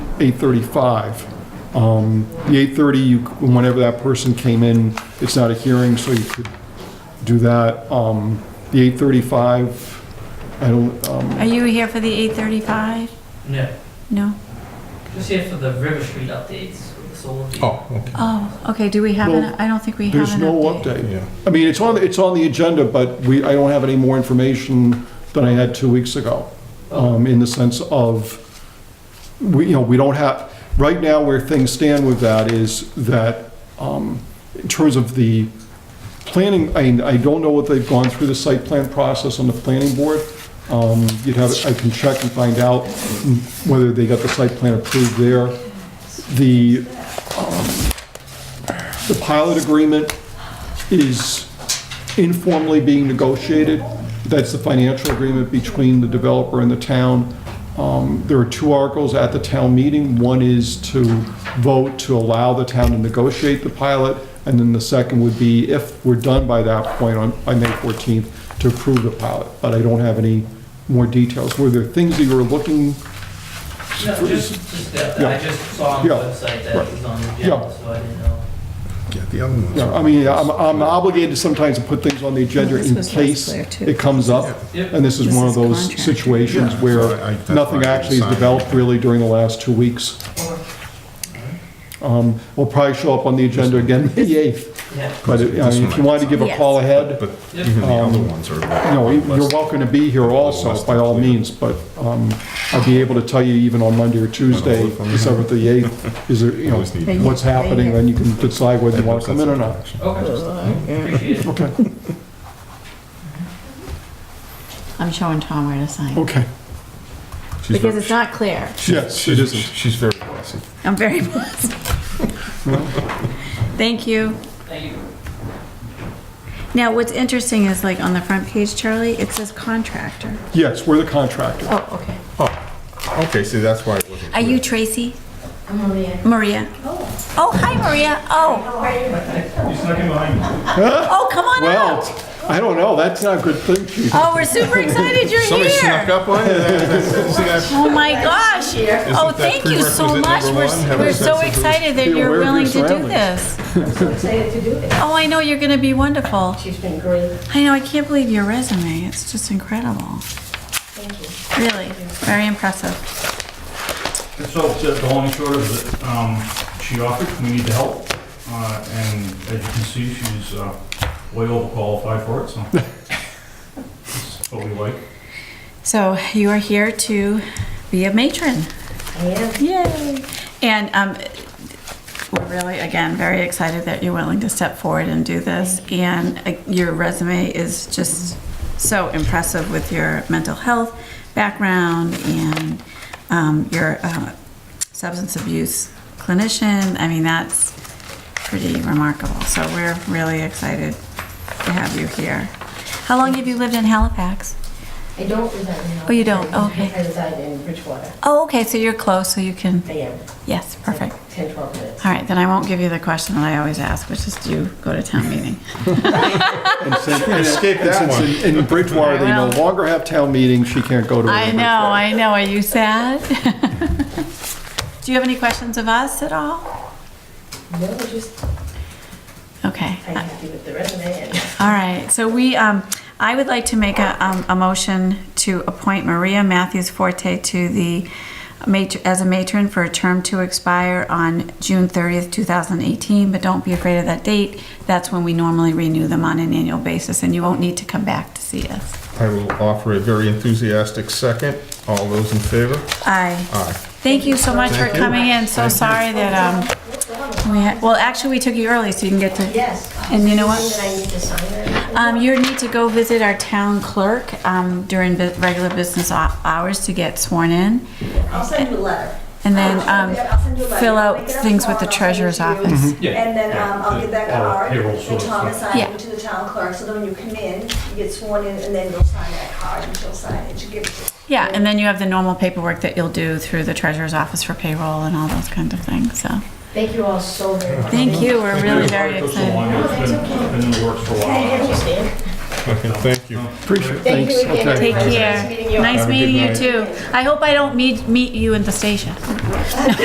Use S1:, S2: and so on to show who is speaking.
S1: 8:35. Um, The 8:30, you, whenever that person came in, it's not a hearing, so you could do that. Um, The 8:35, I don't, um,
S2: Are you here for the eight thirty-five?
S3: No,
S2: No?
S3: just here for the River Street updates with the solar. field.
S4: Oh, okay,
S2: Oh, okay, do we have an,
S1: Well,
S2: I don't think we have
S1: there's
S2: an
S1: no
S2: update.
S1: update.
S4: yeah.
S1: I mean, it's on, it's on the agenda, but we, I don't have any more information than I had two weeks ago, um, in the sense of, we, you know, we don't have, right now where things stand with that is that, um, in terms of the planning, I, I don't know what they've gone through the site plan process on the planning board. Um, you'd have, I can check and find out whether they got the site plan approved there. The, um, the pilot agreement is informally being negotiated. That's the financial agreement between the developer and the town. Um, There are two articles at the town meeting. One is to vote to allow the town to negotiate the pilot, and then the second would be, if we're done by that point on, by May 14th, to approve the pilot. But I don't have any more details. Were there things that you were looking?
S3: No, just, just that,
S1: Yeah.
S3: I just saw on the
S1: Yeah.
S3: website that
S1: Right.
S3: it was on the
S1: Yeah.
S3: agenda, so I didn't know.
S4: Yeah, the other ones.
S1: Yeah, I mean, I'm I'm obligated sometimes to put things on the agenda
S5: This
S1: in
S5: was last
S1: case
S5: clear, too.
S1: it comes up.
S3: Yep.
S1: And this is
S5: This
S1: one of
S5: is
S1: those
S5: contract.
S1: situations
S4: Yeah.
S1: where
S4: So I- I- that's
S1: nothing
S4: why I
S1: actually is
S4: decided.
S1: developed really during the last two weeks. Um, We'll probably show up on the agenda again May 8th,
S3: Yeah.
S1: but uh,
S4: This one
S1: if you
S4: I-
S1: want to give a call ahead,
S4: But even the other ones are. uh,
S1: you know, you're welcome to be here also, by all means, but um, I'll be able to tell you even on Monday or Tuesday,
S4: if I'm
S1: the 7th or the 8th, is there, you know,
S4: Always need-
S1: what's happening, then you can decide whether you want to come in or not.
S3: Okay, appreciate it.
S1: Okay,
S5: I'm showing Tom where to sign.
S1: okay.
S4: She's
S5: Because
S4: very-
S5: it's not clear.
S1: Yes, it
S4: she's-
S1: isn't.
S4: She's very bossy.
S5: I'm very blessed. Thank you.
S3: Thank you.
S5: Now, what's interesting is like on the front page, Charlie, it says contractor.
S1: Yes, we're the contractor.
S5: Oh, okay.
S4: Oh, okay, see, that's why it wasn't.
S5: Are you Tracy? I'm Maria. Maria. Oh. Oh, hi, Maria. Oh. You snuck in behind me. Oh, come on
S1: Well,
S5: out.
S1: I don't know, that's not a good thing, Chief.
S5: Oh, we're super excited you're
S4: Somebody snuck
S5: here.
S4: up on you? See that?
S5: Oh, my gosh. Oh,
S4: that
S5: thank you so
S4: prerequisite
S5: much.
S4: number
S5: We're
S4: one? Have a
S5: we're
S4: sense
S5: so
S4: of who's-
S5: excited that
S1: Be aware
S5: you're
S1: of your
S5: willing to do
S1: surroundings.
S5: this.
S6: excited to do this.
S5: Oh, I know you're going to be wonderful.
S6: She's been great.
S5: I know, I can't believe your resume. It's just incredible. Thank you. Really, very impressive.
S7: So the the long and short of it, um, she offered, we need the help, uh, and as you can see, she's uh, way overqualified for it, so. This is what we like.
S5: So you are here to be a matron.
S6: I am.
S5: Yay! And um, we're really, again, very excited that you're willing to step forward and do this. And uh, your resume is just so impressive with your mental health background and um, your uh, substance abuse clinician. I mean, that's pretty remarkable. So we're really excited to have you here. How long have you lived in Halifax?
S6: I don't reside in Halifax.
S5: Oh, you don't? Okay.
S6: I reside in Bridgewater.
S5: Oh, okay, so you're close, so you can,
S6: I am.
S5: yes, perfect.
S6: 10, 12 minutes.
S5: All right, then I won't give you the question that I always ask, which is, do you go to town meeting?
S1: And since- and
S4: Escape
S1: since
S4: that one.
S1: in- In Bridgewater, they no
S5: Well-
S1: longer have town meetings, she can't go to it.
S5: I know, I know, are you sad? Do you have any questions of us at all?
S6: No, just,
S5: Okay,
S6: I'm happy with the resume and
S5: all right, so we, um, I would like to make a, um, a motion to appoint Maria Matthews Forte to the, mat- as a matron for a term to expire on June 30th, 2018, but don't be afraid of that date, that's when we normally renew them on an annual basis, and you won't need to come back to see us.
S4: I will offer a very enthusiastic second. All those in favor?
S5: Aye.
S4: Aye.
S5: Thank you so much for
S4: Thank you.
S5: coming in. So sorry that, um, we had, well, actually, we took you early so you can get to,
S6: yes.
S5: and you know
S6: Anything
S5: what?
S6: that I need to sign or anything?
S5: Um, you need to go visit our town clerk, um, during bu- regular business hou- hours to get sworn in.
S6: I'll send you a letter.
S5: And then,
S6: I'll send
S5: um,
S6: you- I'll send you a letter.
S5: fill
S6: I'll
S5: out
S6: make it up
S5: things with
S6: tomorrow,
S5: the
S6: I'll send it
S5: treasurer's
S6: to you.
S5: office.
S4: Mm-hmm.
S7: Yeah,
S6: And then
S7: yeah,
S6: um, I'll
S7: the-
S6: give that
S7: all
S6: card,
S7: payroll
S6: and
S7: sort of
S6: Tom
S7: stuff.
S6: assigns
S5: Yeah.
S6: it to the town clerk, so then when you come in, you get sworn in, and then you'll sign that card, and she'll sign it, she'll give it to you.
S5: Yeah, and then you have the normal paperwork that you'll do through the treasurer's office for payroll and all those kind of things, so.
S6: Thank you all so very much.
S5: Thank you, we're really very
S7: It took so
S5: excited.
S7: long, it's been- Been in the works for a while.
S4: Okay, thank you.
S1: Appreciate it,
S6: Thank
S1: thanks.
S6: you again.
S1: Okay.
S5: Take
S6: Nice
S5: care.
S6: meeting you all.
S5: Nice
S4: Have a good
S5: meeting you
S4: night.
S5: too. I hope I don't meet, meet you in the station.